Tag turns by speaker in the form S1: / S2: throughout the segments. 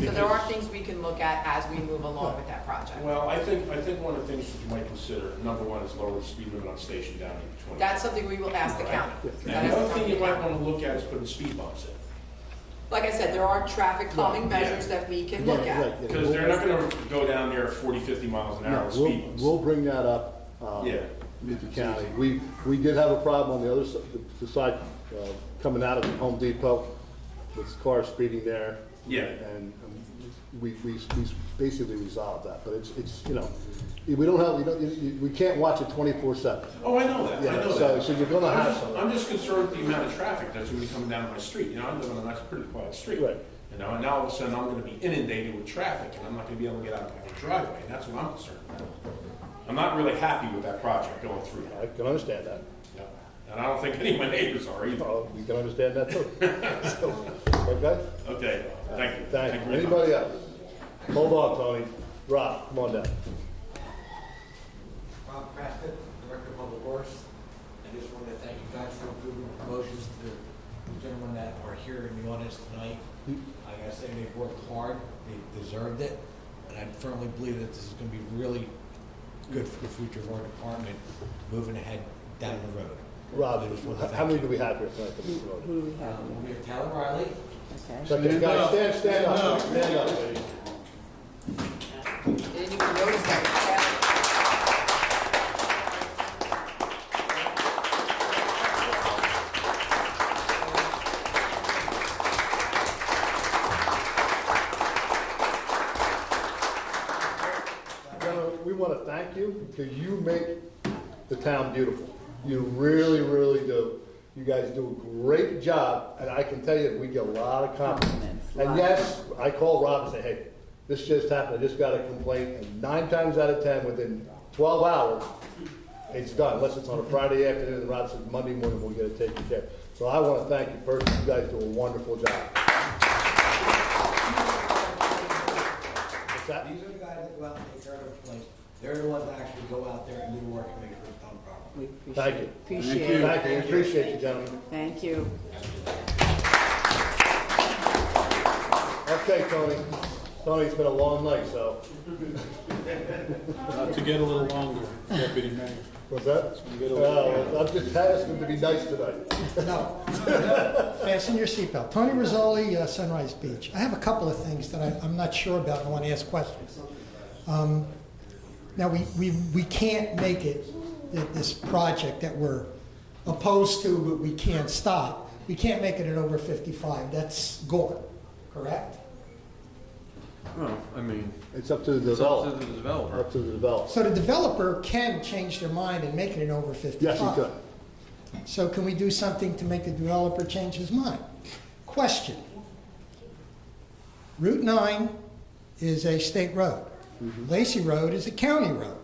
S1: So there are things we can look at as we move along with that project.
S2: Well, I think, I think one of the things that you might consider, number one, is lower the speed limit on Station down to twenty.
S1: That's something we will ask the county. That
S2: And
S1: is
S2: the other thing you
S1: something-
S2: might wanna look at is putting speed bumps in,
S1: Like I said, there are traffic calming
S2: Right, yeah.
S1: measures that we can look
S3: Yeah, right,
S1: at.
S3: yeah.
S2: because they're not gonna go down there at 40, 50 miles an hour
S3: No,
S2: with
S3: we'll,
S2: speed bumps.
S3: we'll bring that up, um,
S2: Yeah.
S3: with the county. We, we did have a problem on the other side, the side, uh, coming out of Home Depot, with cars speeding there.
S2: Yeah.
S3: And um, we, we, we basically resolved that, but it's, it's, you know, we don't have, we don't, you- you- we can't watch it twenty-four seven.
S2: Oh, I know that, I
S3: Yeah,
S2: know
S3: so-
S2: that.
S3: so you're gonna
S2: I'm
S3: have
S2: just-
S3: some.
S2: I'm just concerned with the amount of traffic that's gonna be coming down my street, you know, I live on a nice, pretty quiet street.
S3: Right.
S2: You know, and now all of a sudden, I'm gonna be inundated with traffic, and I'm not gonna be able to get out of my own driveway, and that's what I'm concerned about. I'm not really happy with that project going through
S3: I
S2: that,
S3: can understand that.
S2: you know, and I don't think any of my neighbors are either.
S3: Oh, we can understand that too. So, Okay?
S2: Okay, thank you.
S3: Thank
S2: very
S3: you.
S2: much.
S3: Anybody else? Hold on, Tony. Rob, come on down.
S4: Bob Crafton, Director of Public Works. I just wanted to thank you guys for approving promotions to the gentlemen that are here in the audience tonight. I gotta say, they've worked hard, they deserved it, and I firmly believe that this is gonna be really good for the future of our department, moving ahead down the road.
S3: Rob,
S4: I just wanna
S3: how-
S4: thank
S3: how many
S4: you.
S3: do we have here tonight? that we promoted?
S4: Um, We have Tyler Riley,
S3: Okay, guys, stand, stand up, stand up.
S1: Didn't even notice that.
S3: Gentlemen, we want to thank you because you make the town beautiful. You really, really do. You guys do a great job, and I can tell you, we get a lot of compliments. And yes, I call Rob and say, hey, this just happened, I just got a complaint, and nine times out of 10, within 12 hours, it's done, unless it's on a Friday afternoon, and Rob says, Monday morning, we'll get it taken care of. So I want to thank you first, you guys do a wonderful job. What's that?
S4: these are the guys that go out and take care of the place. They're the ones that actually go out there and do the work and make sure it's done properly.
S5: We
S3: Thank you.
S5: Appreciate it.
S3: Thank you, appreciate you, gentlemen.
S5: Thank you.
S3: Okay, Tony. Tony, it's been a long night, so.
S6: Uh, To get a little longer, Deputy Mayor.
S3: What's that?
S6: been good.
S3: Uh, I'm just asking to be nice tonight.
S7: No. Fasten your seatbelt. Tony Rizzoli, uh, Sunrise Beach. I have a couple of things that I- I'm not sure about and I want to ask questions. Um, Now, we we we can't make it, that this project that we're opposed to, but we can't stop, we can't make it at over 55. That's gone, correct?
S6: Well, I mean,
S3: It's up to the
S6: it's up to the
S3: developer.
S6: developer.
S3: Up to the developer.
S7: So the developer can change their mind and make it an over 55.
S3: Yes, he could.
S7: So can we do something to make the developer change his mind? Question. Route 9 is a state road. Lacey Road is a county road.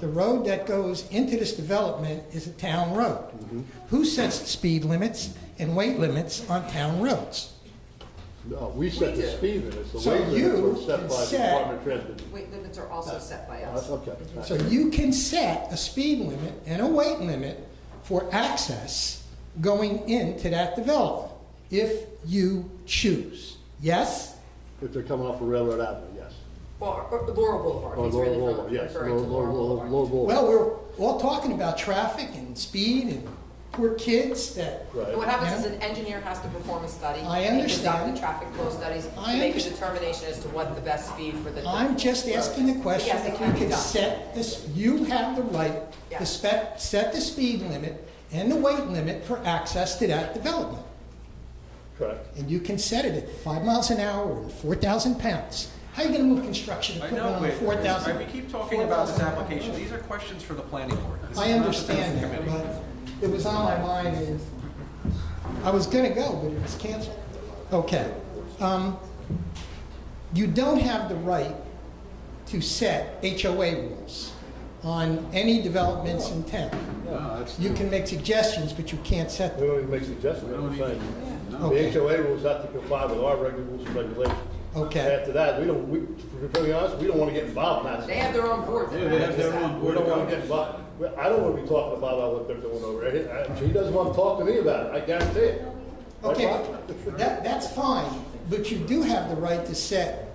S7: The road that goes into this development is a town road. Who sets the speed limits and weight limits on town roads?
S3: No, we set the speed limits. The
S7: So
S3: weight limits
S7: you
S3: were set
S7: can
S3: by the
S7: set-
S3: Department of Transportation.
S1: Weight limits are also set by
S3: Uh,
S1: us.
S3: Okay. all
S7: So
S3: right.
S7: you can set a speed limit and a weight limit for access going into that development if you choose. Yes?
S3: If they're coming off of Railroad Avenue, yes.
S1: Or or Laurel Boulevard,
S3: Or
S1: he's
S3: Oh, Laurel
S1: really
S3: Boulevard, yes.
S1: referring to
S3: Laurel-
S1: Laurel
S3: Laurel-
S1: Boulevard.
S3: Laurel Boulevard.
S7: Well, we're all talking about traffic and speed and poor kids that,
S1: And What
S3: Right.
S1: happens is
S7: Yeah.
S1: an engineer has to perform a study.
S7: I
S1: and Conduct
S7: understand.
S1: the traffic flow studies
S7: I
S1: to make a
S7: understand.
S1: determination as to what the best speed for the.
S7: I'm just asking the question,
S1: Yes, it
S7: if
S1: can
S7: you
S1: be
S7: can
S1: done.
S7: set this, you have the right
S1: Yeah.
S7: to spec, set the speed limit and the weight limit for access to that development.
S3: Correct.
S7: and you can set it at five miles an hour and four thousand pounds. How are you gonna move construction
S8: I
S7: equipment
S8: know,
S7: on
S8: wait,
S7: uh, four thousand?
S8: right, we keep talking about this application, these are questions for the planning board. This
S7: I
S8: is not the business
S7: understand that,
S8: committee.
S7: but it was on my mind and I was gonna go, but it was canceled. Okay. Um, you don't have the right to set HOA rules on any developments in town.
S6: No, that's,
S7: You can make suggestions, but you can't set
S3: We
S7: them.
S3: don't even make suggestions,
S6: we
S3: I'm
S6: don't
S3: saying.
S6: even, no.
S3: The
S7: Okay,
S3: HOA rules have to comply with our reg- rules and regulations.
S7: okay.
S3: After that, we don't, we, to be really honest, we don't want to get involved in that.
S1: They have their own board.
S6: Yeah, they have their own
S3: We
S6: board
S3: don't
S6: of
S3: want to
S6: governors.
S3: get involved. Well, I don't want to be talking about what they're doing over there. He- I- He doesn't want to talk to me about it, I guarantee it. Right,
S7: Okay,
S3: Bob?
S7: that, that's fine, But you do have the right to set